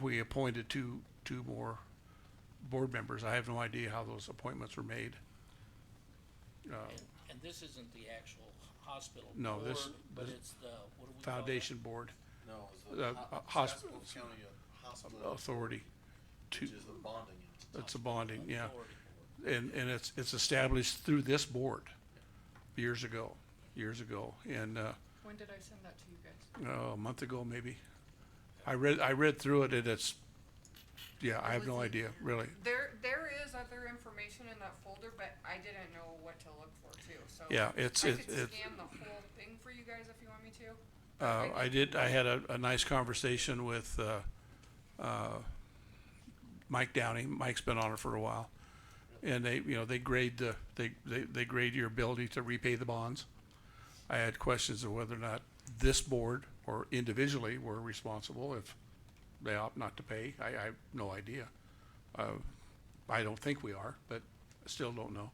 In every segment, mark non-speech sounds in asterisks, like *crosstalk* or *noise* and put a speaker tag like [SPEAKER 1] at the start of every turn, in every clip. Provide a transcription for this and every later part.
[SPEAKER 1] we appointed two, two more board members. I have no idea how those appointments were made. Uh,
[SPEAKER 2] And, and this isn't the actual hospital
[SPEAKER 1] No,
[SPEAKER 2] board,
[SPEAKER 1] this-
[SPEAKER 2] but
[SPEAKER 1] this-
[SPEAKER 2] it's the, what do we call that?
[SPEAKER 1] Foundation Board
[SPEAKER 3] No, it's
[SPEAKER 1] The,
[SPEAKER 3] the
[SPEAKER 1] uh, Oh,
[SPEAKER 3] ho-
[SPEAKER 1] hospital-
[SPEAKER 3] Chatsworth County uh, Hospital,
[SPEAKER 1] Authority to,
[SPEAKER 3] which is the bonding.
[SPEAKER 1] it's a bonding, yeah.
[SPEAKER 2] Authority board.
[SPEAKER 1] And, and it's, it's established through this board years ago, years ago. And, uh,
[SPEAKER 4] When did I send that to you guys?
[SPEAKER 1] uh, a month ago maybe. I read, I read through it and it's, yeah, I have no
[SPEAKER 4] Wasn't-
[SPEAKER 1] idea, really.
[SPEAKER 4] There, there is other information in that folder, but I didn't know what to look for too, so.
[SPEAKER 1] Yeah, it's-
[SPEAKER 4] I
[SPEAKER 1] it-
[SPEAKER 4] could
[SPEAKER 1] it-
[SPEAKER 4] scan the whole thing for you guys if you want me to.
[SPEAKER 1] Uh,
[SPEAKER 4] I
[SPEAKER 1] I did, I had a, a nice conversation with, uh, uh, Mike Downey. Mike's been on it for a while. And they, you know, they grade the, they, they, they grade your ability to repay the bonds. I had questions of whether or not this board or individually were responsible if they opt not to pay. I, I have no idea. Uh, I don't think we are, but I still don't know.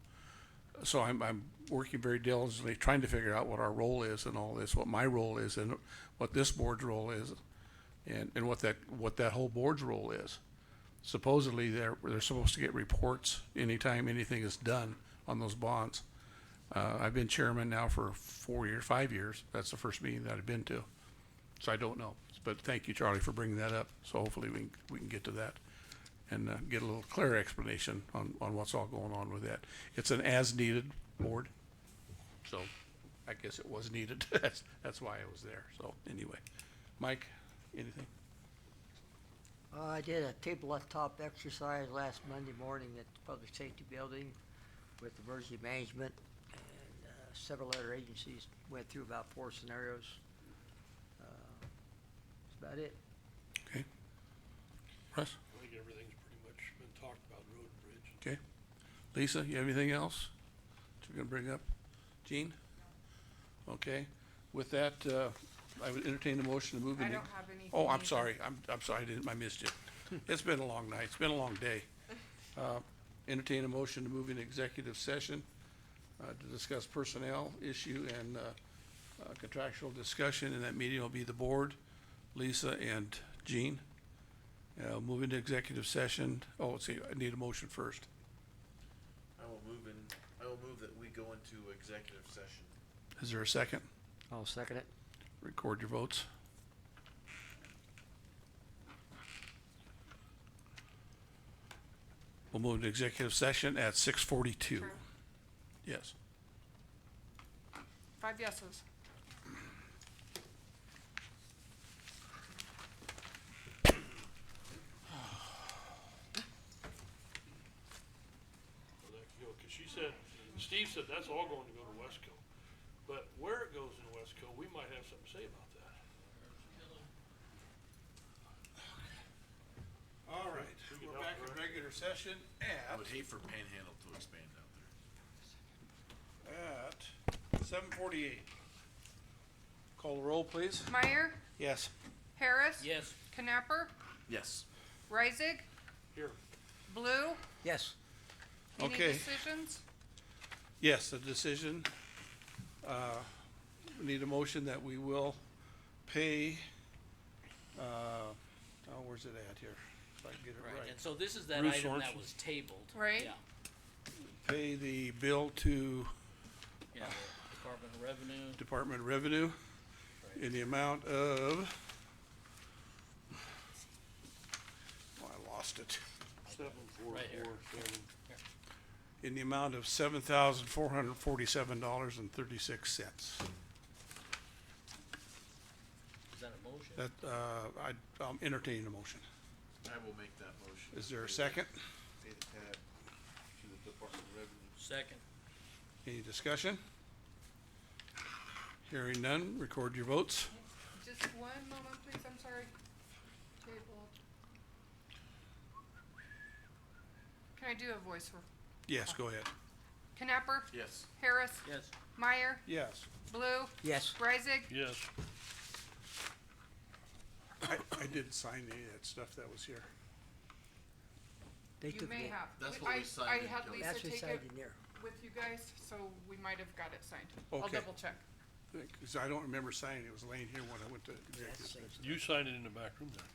[SPEAKER 1] So I'm, I'm working very diligently, trying to figure out what our role is in all this, what my role is and what this board's role is and, and what that, what that whole board's role is. Supposedly, they're, they're supposed to get reports anytime anything is done on those bonds. Uh, I've been chairman now for four years, five years. That's the first meeting that I've been to. So I don't know. But thank you, Charlie, for bringing that up. So hopefully we can, we can get to that and uh, get a little clearer explanation on, on what's all going on with that. It's an as-needed board, so I guess it was needed. *laughs* That's, that's why I was there. So anyway, Mike, anything?
[SPEAKER 5] Uh, I did a tabletop exercise last Monday morning at the Public Safety Building with emergency management and uh, several other agencies. Went through about four scenarios. Uh, That's about it.
[SPEAKER 1] Okay. Russ,
[SPEAKER 6] I think everything's pretty much been talked about, road and bridge.
[SPEAKER 1] okay. Lisa, you have anything else that you're gonna bring up? Jean? Okay, with that, uh, I would entertain a motion to move the
[SPEAKER 4] I
[SPEAKER 1] ne-
[SPEAKER 4] don't have anything.
[SPEAKER 1] Oh, I'm
[SPEAKER 4] either.
[SPEAKER 1] sorry. I'm, I'm sorry. I didn't, I missed you. It's been a long night. It's been a long
[SPEAKER 4] *laughs*
[SPEAKER 1] day. Uh, Entertain a motion to move into executive session uh, to discuss personnel issue and uh, uh, contractual discussion. And that meeting will be the board, Lisa and Jean. Uh, Move into executive session. Oh, let's see, I need a motion first.
[SPEAKER 3] I will move in, I will move that we go into executive session.
[SPEAKER 1] Is there a second?
[SPEAKER 5] I'll second it.
[SPEAKER 1] Record your votes. We'll move to executive session at six forty-two.
[SPEAKER 4] True.
[SPEAKER 1] Yes.
[SPEAKER 4] Five yeses.
[SPEAKER 6] Well, that, you know, 'cause she said, Steve said that's all going to go to Wesco. But where it goes in Wesco, we might have something to say about that.
[SPEAKER 1] All right, we're back in regular session
[SPEAKER 3] I
[SPEAKER 1] at,
[SPEAKER 3] would hate for Panhandle to expand out there.
[SPEAKER 1] at seven forty-eight. Call the roll, please.
[SPEAKER 4] Meyer,
[SPEAKER 1] Yes.
[SPEAKER 4] Harris.
[SPEAKER 2] Yes,
[SPEAKER 4] Knapper,
[SPEAKER 3] Yes.
[SPEAKER 4] Reisig,
[SPEAKER 6] Here,
[SPEAKER 4] Blue.
[SPEAKER 5] Yes.
[SPEAKER 4] Any
[SPEAKER 1] Okay.
[SPEAKER 4] decisions?
[SPEAKER 1] Yes, the decision. Uh, we need a motion that we will pay, uh, oh, where's it at here? If I can get it
[SPEAKER 2] right,
[SPEAKER 1] right.
[SPEAKER 2] and so this is that
[SPEAKER 1] Bruce
[SPEAKER 2] item that
[SPEAKER 1] Sorensen.
[SPEAKER 2] was tabled.
[SPEAKER 4] Right.
[SPEAKER 2] Yeah,
[SPEAKER 1] Pay the bill to
[SPEAKER 2] yeah, the Department of Revenue,
[SPEAKER 1] Department of Revenue in the amount of. Oh, I lost it.
[SPEAKER 6] seven, four,
[SPEAKER 2] Right here.
[SPEAKER 6] four, seven.
[SPEAKER 1] In the amount of seven thousand four hundred forty-seven dollars and thirty-six cents.
[SPEAKER 2] is that a motion?
[SPEAKER 1] That, uh, I, I'm entertaining a motion.
[SPEAKER 3] I will make that motion.
[SPEAKER 1] Is there a second?
[SPEAKER 3] Pay the tab to the Department of Revenue.
[SPEAKER 2] Second,
[SPEAKER 1] Any discussion? Hearing none, record your votes.
[SPEAKER 4] Just one moment, please, I'm sorry. Table. Can I do a voice? for-
[SPEAKER 1] Yes, go ahead.
[SPEAKER 4] Knapper,
[SPEAKER 3] Yes.
[SPEAKER 4] Harris,
[SPEAKER 2] yes,
[SPEAKER 4] Meyer,
[SPEAKER 1] Yes.
[SPEAKER 4] Blue,
[SPEAKER 5] Yes.
[SPEAKER 4] Reisig,
[SPEAKER 6] Yes,
[SPEAKER 1] I, I didn't sign any of that stuff that was here.
[SPEAKER 5] They
[SPEAKER 4] You
[SPEAKER 5] took
[SPEAKER 4] may
[SPEAKER 5] it.
[SPEAKER 4] have.
[SPEAKER 3] That's
[SPEAKER 4] We-
[SPEAKER 3] what we
[SPEAKER 4] I-
[SPEAKER 3] signed
[SPEAKER 4] I
[SPEAKER 3] in
[SPEAKER 4] had
[SPEAKER 3] Kelly.
[SPEAKER 4] Lisa
[SPEAKER 5] That's
[SPEAKER 4] take
[SPEAKER 5] recited
[SPEAKER 4] it
[SPEAKER 5] in there.
[SPEAKER 4] with you guys, so we might have got it signed. I'll
[SPEAKER 1] Okay.
[SPEAKER 4] double check.
[SPEAKER 1] Because I don't remember signing, it was laying here when I went to
[SPEAKER 5] That's
[SPEAKER 1] executive
[SPEAKER 5] the same.
[SPEAKER 1] session.
[SPEAKER 6] you signed it in the back room there.